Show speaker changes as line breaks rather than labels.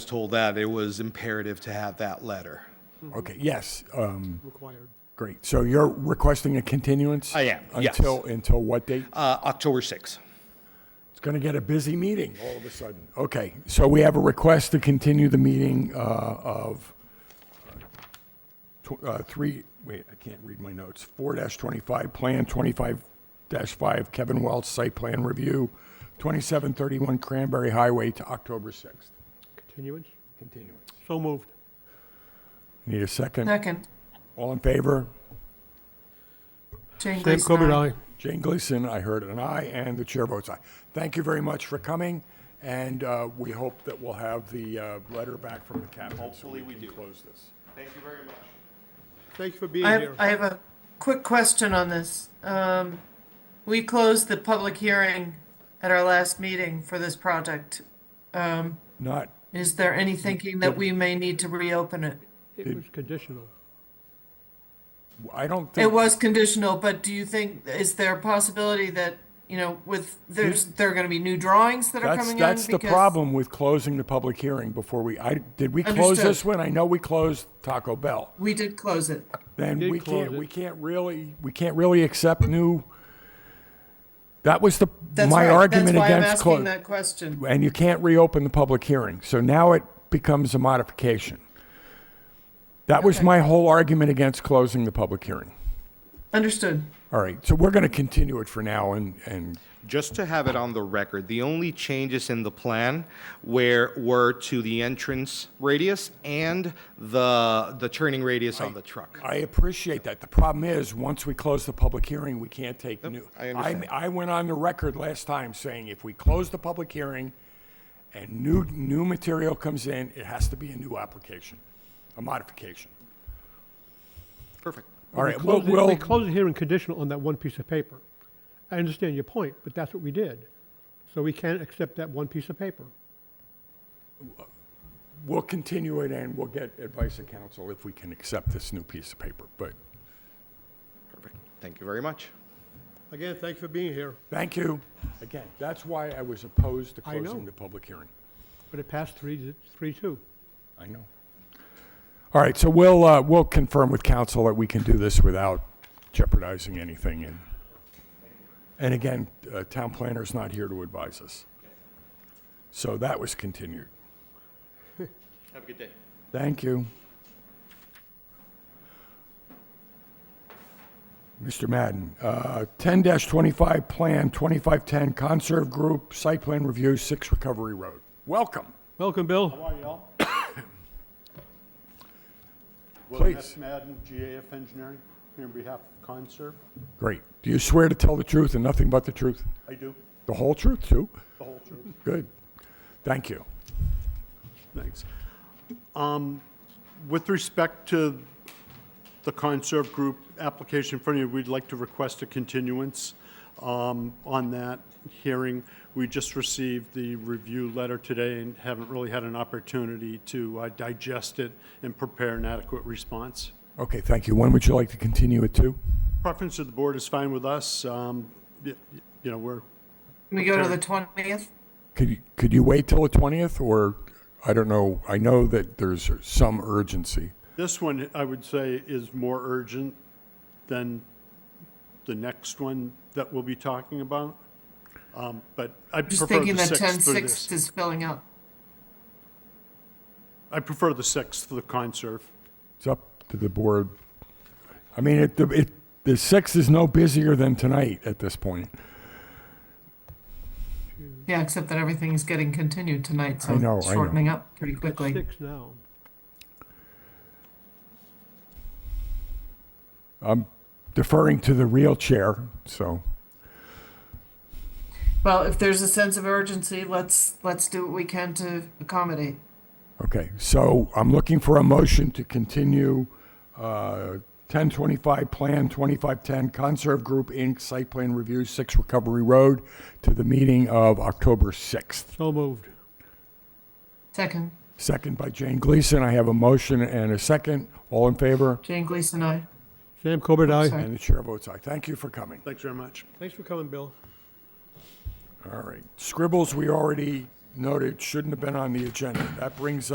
told that it was imperative to have that letter.
Okay, yes, um,
required.
great. So you're requesting a continuance?
I am, yes.
Until, until what date?
Uh, October 6th.
It's going to get a busy meeting all of a sudden. Okay, so we have a request to continue the meeting uh, of tw- uh, three, wait, I can't read my notes, four twenty-five plan, twenty-five five Kevin Welch site plan review, twenty-seven thirty-one Cranberry Highway to October sixth.
Continuance?
Continuance.
So moved.
Need a second?
Second.
All in favor?
Jane
Sam
Gleason,
Corbett,
aye.
aye.
Jane Gleason, I heard an aye, and the chair votes aye. Thank you very much for coming, and uh, we hope that we'll have the uh, letter back from the cabinet. Hopefully, we do. Close this.
Thanks for being
I have,
here.
I have a quick question on this. Um, we closed the public hearing at our last meeting for this project.
Not,
Is there any thinking that we may need to reopen it?
It was conditional.
I don't
It
think,
was conditional, but do you think, is there a possibility that, you know, with, there's, there are gonna be new drawings that are
that's,
coming in?
that's the
Because-
problem with closing the public hearing before we, I, did we close
Understood.
this one? I know we closed Taco Bell.
We did close it.
Then
did
we can't,
close it.
we can't really, we can't really accept new, that was the,
That's
my
right.
argument
That's why I'm
against
asking
closing.
that question.
And you can't reopen the public hearing. So now it becomes a modification. That was
Okay.
my whole argument against closing the public hearing.
Understood.
All right, so we're going to continue it for now and, and
Just to have it on the record, the only changes in the plan where were to the entrance radius and the the turning radius on the truck.
I appreciate that. The problem is, once we close the public hearing, we can't take new.
I understand.
I went on the record last time saying if we close the public hearing and new, new material comes in, it has to be a new application, a modification.
Perfect.
All
We
right, we'll,
closed it- We
we'll,
closed the hearing conditional on that one piece of paper. I understand your point, but that's what we did. So we can't accept that one piece of paper.
we'll continue it and we'll get advice of counsel if we can accept this new piece of paper. But
Perfect. Thank you very much.
Again, thanks for being here,
thank you. Again, that's why I was opposed to
I know.
closing the public hearing.
but it passed three, three, two.
I know. All right, so we'll, uh, we'll confirm with council that we can do this without jeopardizing anything. And, and again, uh, town planner's not here to advise us. So that was continued.
Have a good day.
Thank you. Mr. Madden, uh, 10-25 Plan 2510 Conserve Group Site Plan Review, 6 Recovery Road. Welcome,
Welcome, Bill.
How are y'all? William
please.
F. Madden, GAF Engineering, here on behalf of Conserv.
Great. Do you swear to tell the truth and nothing but the truth?
I do
The whole truth, too?
the whole truth.
Good. Thank you.
Thanks. Um, With respect to the Conserv Group application in front of you, we'd like to request a continuance um, on that hearing. We just received the review letter today and haven't really had an opportunity to uh, digest it and prepare an adequate response.
Okay, thank you. When would you like to continue it to?
Preference of the board is fine with us. Um, y- y- You know, we're
Can we go to the twentieth?
Could you, could you wait till the 20th, or, I don't know, I know that there's some urgency.
This one, I would say, is more urgent than the next one that we'll be talking about. Um, But I
Just
prefer
thinking
the
that ten
6th for
sixth
this.
is filling up.
I prefer the 6th for the conserve.
It's up to the board. I mean, it, it, the 6th is no busier than tonight at this point.
Yeah, except that everything is getting continued tonight, so
I know,
it's
I know.
shortening up pretty quickly.
Six now.
Deferring to the real chair, so,
Well, if there's a sense of urgency, let's, let's do what we can to accommodate.
okay. So I'm looking for a motion to continue uh, 1025 Plan 2510 Conserve Group, Inc., Site Plan Review, 6 Recovery Road, to the meeting of October 6th.
So moved.
Second,
Second by Jane Gleason. I have a motion and a second. All in favor?
Jane Gleason, aye.
Sam Corbett, aye.
Sorry.
And the chair votes aye. Thank you for coming.
Thanks very much.
Thanks for coming, Bill.
All right. Scribbles, we already noted, shouldn't have been on the agenda. That brings